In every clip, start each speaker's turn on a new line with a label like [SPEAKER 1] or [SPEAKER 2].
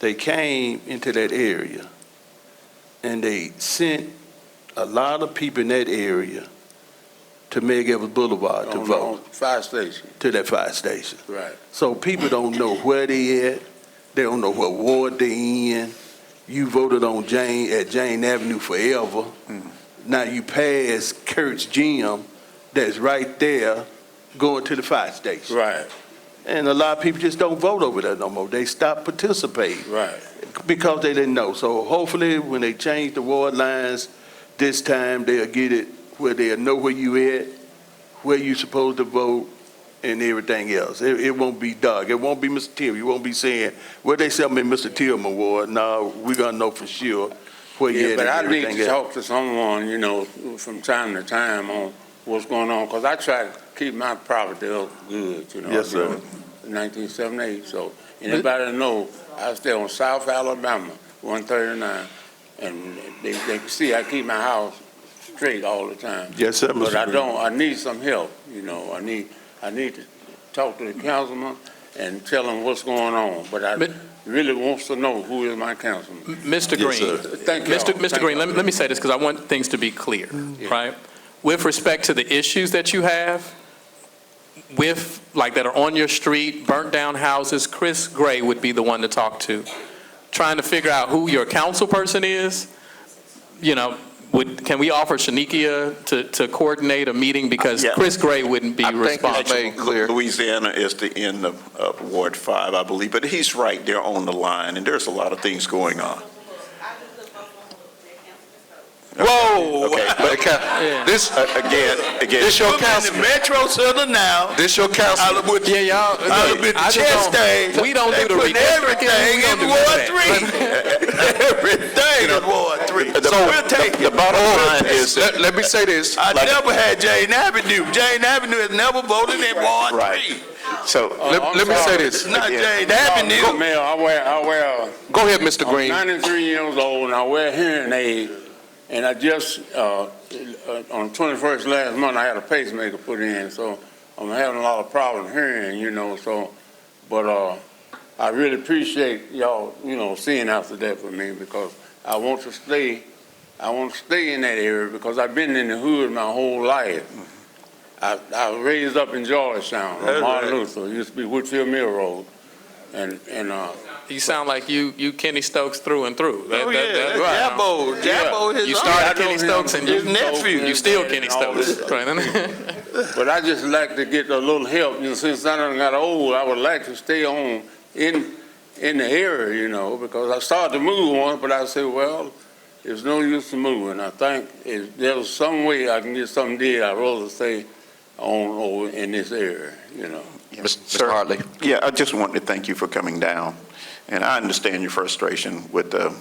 [SPEAKER 1] they came into that area and they sent a lot of people in that area to Meg Evans Boulevard to
[SPEAKER 2] On-
[SPEAKER 1] vote
[SPEAKER 2] on Fire station,
[SPEAKER 1] to that fire station.
[SPEAKER 2] right.
[SPEAKER 1] So people don't know where they at. They don't know what ward they in. You voted on Jane at Jane Avenue forever.
[SPEAKER 2] Mm.
[SPEAKER 1] Now you pass Kurt's Gym that's right there going to the fire station.
[SPEAKER 2] Right,
[SPEAKER 1] And a lot of people just don't vote over there no more. They stop participating
[SPEAKER 2] right.
[SPEAKER 1] because they didn't know. So hopefully, when they change the ward lines this time, they'll get it where they'll know where you at, where you supposed to vote, and everything else. It, it won't be dark. It won't be Mr. Tillman. You won't be saying, well, they sell me Mr. Tillman ward. No, we're gonna know for sure where you
[SPEAKER 2] Yeah,
[SPEAKER 1] at
[SPEAKER 2] but I
[SPEAKER 1] and
[SPEAKER 2] need
[SPEAKER 1] everything
[SPEAKER 2] to
[SPEAKER 1] else.
[SPEAKER 2] talk to someone, you know, from time to time on what's going on, because I try to keep my property up good, you know.
[SPEAKER 1] Yes, sir.
[SPEAKER 2] Nineteen seventy-eight, so anybody know, I stay on South Alabama, one thirty-nine, and they, they can see I keep my house straight all the time.
[SPEAKER 1] Yes, sir,
[SPEAKER 2] But I
[SPEAKER 1] Mr. Green.
[SPEAKER 2] don't, I need some help, you know, I need, I need to talk to the councilman and tell him what's going on, but I
[SPEAKER 3] Mi-
[SPEAKER 2] really wants to know who is my councilman.
[SPEAKER 3] Mr.
[SPEAKER 1] Yes,
[SPEAKER 3] Green,
[SPEAKER 2] Thank you.
[SPEAKER 3] Mr. Mr. Green, let me, let me say this, because I want things to be clear, right? With respect to the issues that you have, with, like, that are on your street, burnt-down houses, Chris Gray would be the one to talk to. Trying to figure out who your council person is, you know, would, can we offer Shanikia to, to coordinate a meeting? Because
[SPEAKER 4] Yeah.
[SPEAKER 3] Chris Gray wouldn't be
[SPEAKER 4] I think it's
[SPEAKER 3] responsible.
[SPEAKER 4] made clear. Louisiana is the end of of Ward 5, I believe, but he's right there on the line, and there's a lot of things going on.
[SPEAKER 5] Whoa!
[SPEAKER 4] Okay, but this, again, again.
[SPEAKER 5] This your councilman.
[SPEAKER 4] Metro Center now.
[SPEAKER 5] This your council.
[SPEAKER 3] Yeah, y'all.
[SPEAKER 5] I done been to
[SPEAKER 3] I just
[SPEAKER 5] chest
[SPEAKER 3] don't-
[SPEAKER 5] day.
[SPEAKER 3] We don't
[SPEAKER 5] They
[SPEAKER 3] do the.
[SPEAKER 5] putting
[SPEAKER 3] redistricting,
[SPEAKER 5] everything
[SPEAKER 3] we don't
[SPEAKER 5] in
[SPEAKER 3] do
[SPEAKER 5] Ward
[SPEAKER 3] that.
[SPEAKER 5] Three. Everything in Ward Three.
[SPEAKER 4] The the- the bottom line is, that-
[SPEAKER 5] Let, let me say this.
[SPEAKER 4] I never
[SPEAKER 5] had Jane Avenue. Jane Avenue has never voted in Ward
[SPEAKER 4] Right. so,
[SPEAKER 2] Oh,
[SPEAKER 5] Let,
[SPEAKER 2] I'm
[SPEAKER 5] let me say
[SPEAKER 2] sorry.
[SPEAKER 5] this.
[SPEAKER 4] not Jane
[SPEAKER 2] Mr. Mayor, I wear, I wear,
[SPEAKER 5] Go ahead, Mr.
[SPEAKER 2] I'm
[SPEAKER 5] Green.
[SPEAKER 2] 93 years old and I wear hearing aids. And I just, uh, uh, on 21st last month, I had a pacemaker put in, so I'm having a lot of problems hearing, you know, so, but, uh, I really appreciate y'all, you know, seeing after that for me because I want to stay, I want to stay in that area because I've been in the hood my whole life. I, I was raised up in Georgetown, on
[SPEAKER 4] That's
[SPEAKER 2] Martin
[SPEAKER 4] right.
[SPEAKER 2] Luther, It used to be Whitfield Mill Road. And, and, uh,
[SPEAKER 3] You sound like you, you Kenny Stokes through and through. That-
[SPEAKER 4] oh
[SPEAKER 3] that- that-
[SPEAKER 4] yeah, Jabbo, Jabbo
[SPEAKER 3] You
[SPEAKER 4] his
[SPEAKER 3] started
[SPEAKER 2] I know
[SPEAKER 3] Kenny
[SPEAKER 2] him.
[SPEAKER 3] Stokes and you,
[SPEAKER 4] His nephew.
[SPEAKER 3] you still
[SPEAKER 2] And
[SPEAKER 3] Kenny
[SPEAKER 2] all
[SPEAKER 3] Stokes.
[SPEAKER 2] this stuff. But I just like to get a little help, you know, since I done got old, I would like to stay on in, in the area, you know, because I started to move once, but I said, well, it's no use to moving. I think if there's some way I can get something did, I'd rather stay on over in this area, you know.
[SPEAKER 4] Sir.
[SPEAKER 5] Mr. Hartley.
[SPEAKER 4] Yeah, I just wanted to thank you for coming down, and I understand your frustration with the,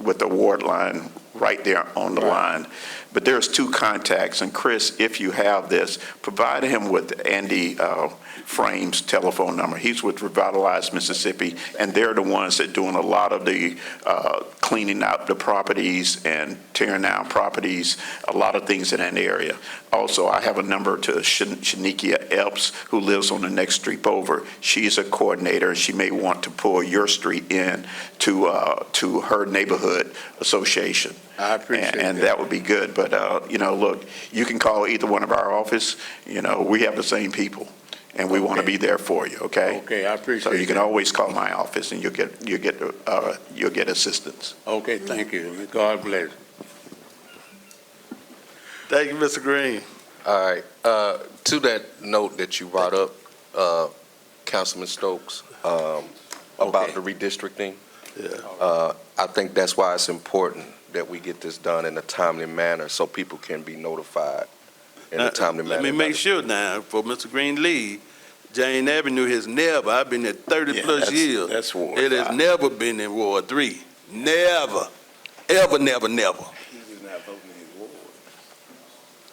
[SPEAKER 4] with the ward line right there on the line. But there's two contacts, and Chris, if you have this, provide him with Andy uh, Frame's telephone number. He's with Revitalize Mississippi, and they're the ones that doing a lot of the uh, cleaning up the properties and tearing down properties, a lot of things in that area. Also, I have a number to Shan- Shanikia Epps, who lives on the next street over. She's a coordinator, and she may want to pull your street in to, uh, to her neighborhood association.
[SPEAKER 2] I appreciate
[SPEAKER 4] And- And
[SPEAKER 2] that.
[SPEAKER 4] that would be good, but, uh, you know, look, you can call either one of our office, you know, we have the same people, and we want to
[SPEAKER 2] Okay.
[SPEAKER 4] be there for you, okay?
[SPEAKER 2] Okay, I
[SPEAKER 4] So you
[SPEAKER 2] appreciate
[SPEAKER 4] can
[SPEAKER 2] that.
[SPEAKER 4] always call my office, and you'll get, you'll get, uh, you'll get assistance.
[SPEAKER 2] Okay, thank you. God bless.
[SPEAKER 1] Thank you, Mr. Green.
[SPEAKER 6] All right, uh, to that note that you brought up, uh, Councilman Stokes, um, about
[SPEAKER 2] Okay.
[SPEAKER 6] the redistricting.
[SPEAKER 1] Yeah.
[SPEAKER 6] uh, I think that's why it's important that we get this done in a timely manner so people can be notified in
[SPEAKER 1] Uh,
[SPEAKER 6] a timely
[SPEAKER 1] Let
[SPEAKER 6] manner.
[SPEAKER 1] me make sure now, for Mr. Green Lee, Jane Avenue has never, I've been there thirty
[SPEAKER 4] Yeah,
[SPEAKER 1] plus
[SPEAKER 4] that's-
[SPEAKER 1] years.
[SPEAKER 4] that's Ward
[SPEAKER 1] It has
[SPEAKER 4] five.
[SPEAKER 1] never been in Ward Three. Never, ever, never, never.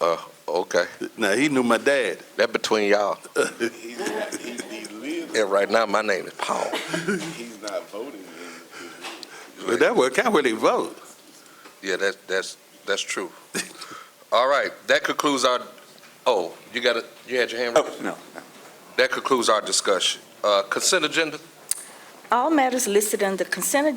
[SPEAKER 6] Uh, Okay,
[SPEAKER 1] Now, he knew my dad.
[SPEAKER 6] that between y'all. And right now, my name is Paul.
[SPEAKER 1] But that was kind of where they vote.
[SPEAKER 6] Yeah, that's, that's, that's true. All right, that concludes our, oh, you got it,
[SPEAKER 2] Oh,
[SPEAKER 6] you had your hand raised?
[SPEAKER 4] no.
[SPEAKER 6] That concludes our discussion. Uh, Consent agenda?
[SPEAKER 7] all matters listed on the consent